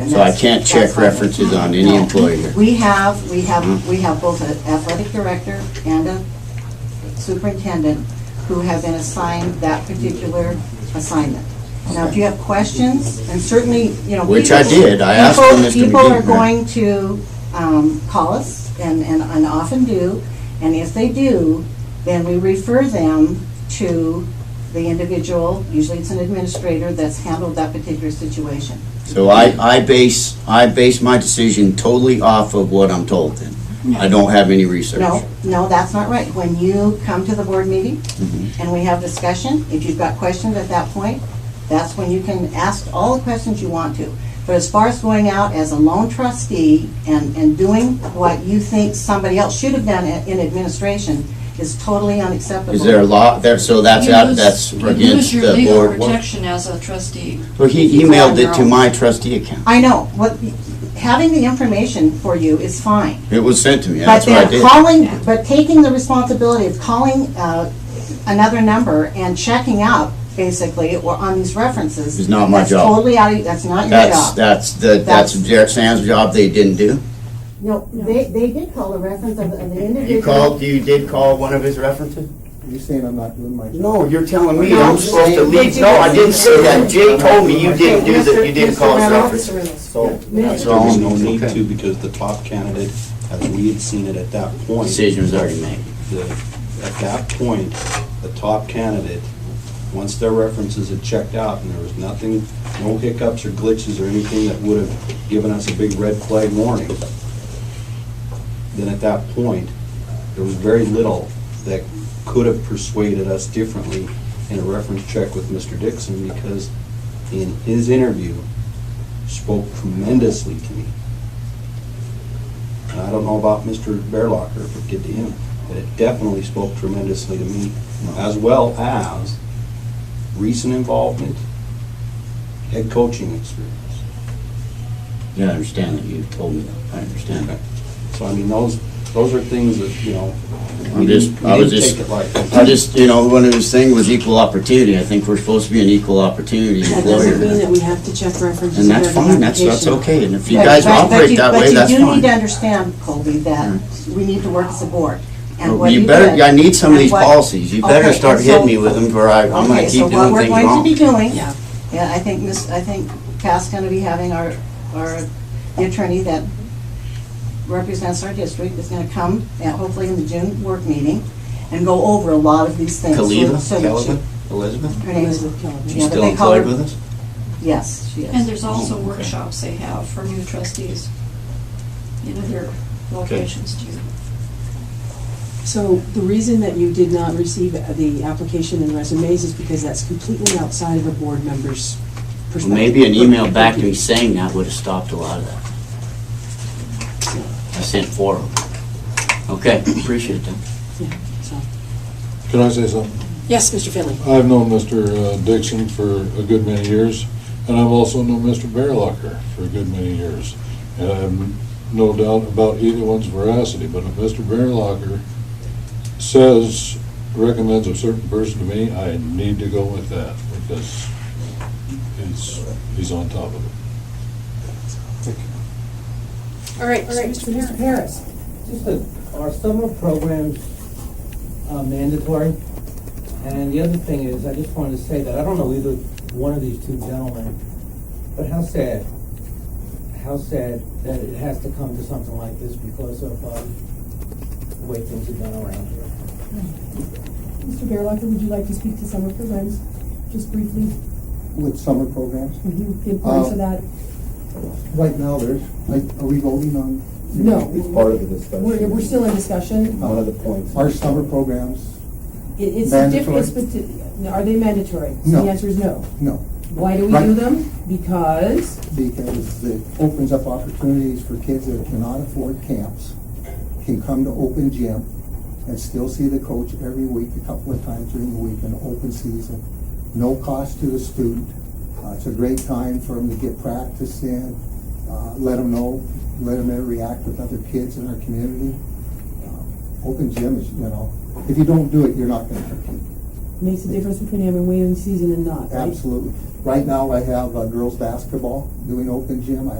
and So I that's- can't check that's on it. references on any No. employee here? We have, we have, Mhm. we have both an athletic director and a superintendent who have been assigned that particular assignment. Now, if you have questions, and certainly, you know. Which people- I did. I asked people- them, Mr. People are McGee. going to um, call us, and, and and often do, and if they do, then we refer them to the individual, usually it's an administrator, that's handled that particular situation. So I, I base, I base my decision totally off of what I'm told then? I don't have any research? No, no, that's not right. When you come to the board meeting Mhm. and we have discussion, if you've got questions at that point, that's when you can ask all the questions you want to. But as far as going out as a lone trustee and, and doing what you think somebody else should have done i- in administration is totally unacceptable. Is there a law, there, so that's You out, lose- that's against You lose the your board? legal protection as a trustee. Well, he You go on emailed it your to own. my trustee account. I know, what, having the information for you is fine. It was sent to me, But that's what I then did. calling, but taking the responsibility of calling uh, another number and checking up, basically, or on these references. It's not my that's job. totally out of, that's not your That's, job. that's, the- that's Jared Sam's job they didn't do? No, they, they did call the reference of the of the individual. you did call one of his references? You're saying I'm not doing my job? No, you're telling me No, I'm supposed to but leave, you no, I didn't. didn't say that, Jay told me you didn't do Okay, that, you didn't Mr. call us Reynolds. references. So That's there was wrong. no need Okay. to because the top candidate, as we had seen it at that point. Decision was already made. the- At that point, the top candidate, once their references had checked out and there was nothing, no hiccups or glitches or anything that would have given us a big red flag warning, then at that point, there was very little that could have persuaded us differently in a reference check with Mr. Dixon because in his interview, spoke tremendously to me. And I don't know about Mr. Bearlocker, if it did to him, but it definitely spoke tremendously to me, as well as recent involvement, head coaching experience. Yeah, I understand that, you told me that, I understand that. So I mean, those, those are things that, you know, we I'm just- didn't I we was didn't just- take it lightly. I just, you know, one of his thing was equal opportunity, I think we're supposed to be an equal opportunity That doesn't mean employer. that we have to check references. And that's of every fine, that's, that's application. okay, and if you But- guys but- but operate you- that way, that's But you do need to fine. Hmm. understand, Colby, that we need to work as a board. And Well, what You better, did- I need some of and these what- policies, you better Okay, start so- hitting me with them, or I, I'm gonna Okay, so keep what doing we're things going to be wrong. doing, Yeah. yeah, I think this, I think Pat's gonna be having our, our the attorney that represents our district is gonna come, and hopefully in the June work meeting, and go over a lot of these things. so- so Kalila, that Kelvin, you- Elizabeth, Her name's, Elizabeth Kelly. she's Yeah, but still they call employed her- with us? yes, she is. And Oh, there's also workshops they have for new trustees in other locations too. So the reason that you did not receive the application and resumes is because that's completely outside of a board member's Well, perspective. Maybe an email back to me saying that would have stopped a lot of that. I sent four of them. Okay, appreciate that. Yeah, so- Can I say something? Yes, Mr. Finley. I've known Mr. Dixon for a good many years, and I've also known Mr. Bearlocker for a good many years. And I have no doubt about either one's veracity, but if Mr. Bearlocker says, recommends a certain person to me, I need to go with that, because he's, he's on top of it. All right, all right, Mr. Harris, Oh. just a, are summer programs uh, mandatory? And the other thing is, I just wanted to say that I don't know either one of these two gentlemen, but how sad, how sad that it has to come to something like this because of um, the way things have gone around here. Mr. Bearlocker, would you like to speak to summer programs, just briefly? With summer programs? The importance Uh, of that? Right now, there's, like, are we voting on? No. It's part of the discussion. We're, we're still in discussion. One of the points. Our summer programs, It- It's the Mandatory? difference, but are they mandatory? So No. The answer is no. no, Why do we Right. do them? Because, because it opens up opportunities for kids that cannot afford camps, can come to open gym and still see the coach every week, a couple of times during the week in open season. No cost to the student. Uh, It's a great time for them to get practice in, uh, let them know, let them interact with other kids in our community. Uh, Open gym is, you know, if you don't do it, you're not gonna compete. makes a difference between having waiting season and not, right? Absolutely. Right now, I have uh, girls' basketball doing open gym. I